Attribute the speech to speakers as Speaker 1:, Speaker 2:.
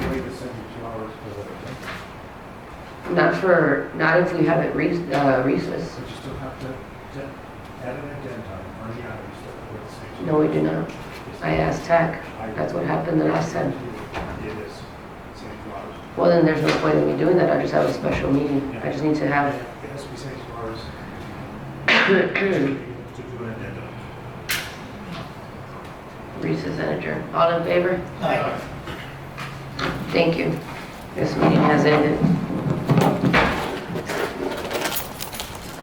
Speaker 1: Not for, not if we have it re, uh, recess.
Speaker 2: But you still have to de- add an addendum or the item still for the same.
Speaker 1: No, we do not. I asked tech.
Speaker 2: I-
Speaker 1: That's what happened the last time.
Speaker 2: It is, same laws.
Speaker 1: Well, then there's no point in me doing that. I just have a special meeting. I just need to
Speaker 2: It
Speaker 1: have.
Speaker 2: has to be same laws
Speaker 1: Recess
Speaker 2: to do an addendum.
Speaker 1: and adjourn. All in favor? Thank you. This meeting has ended.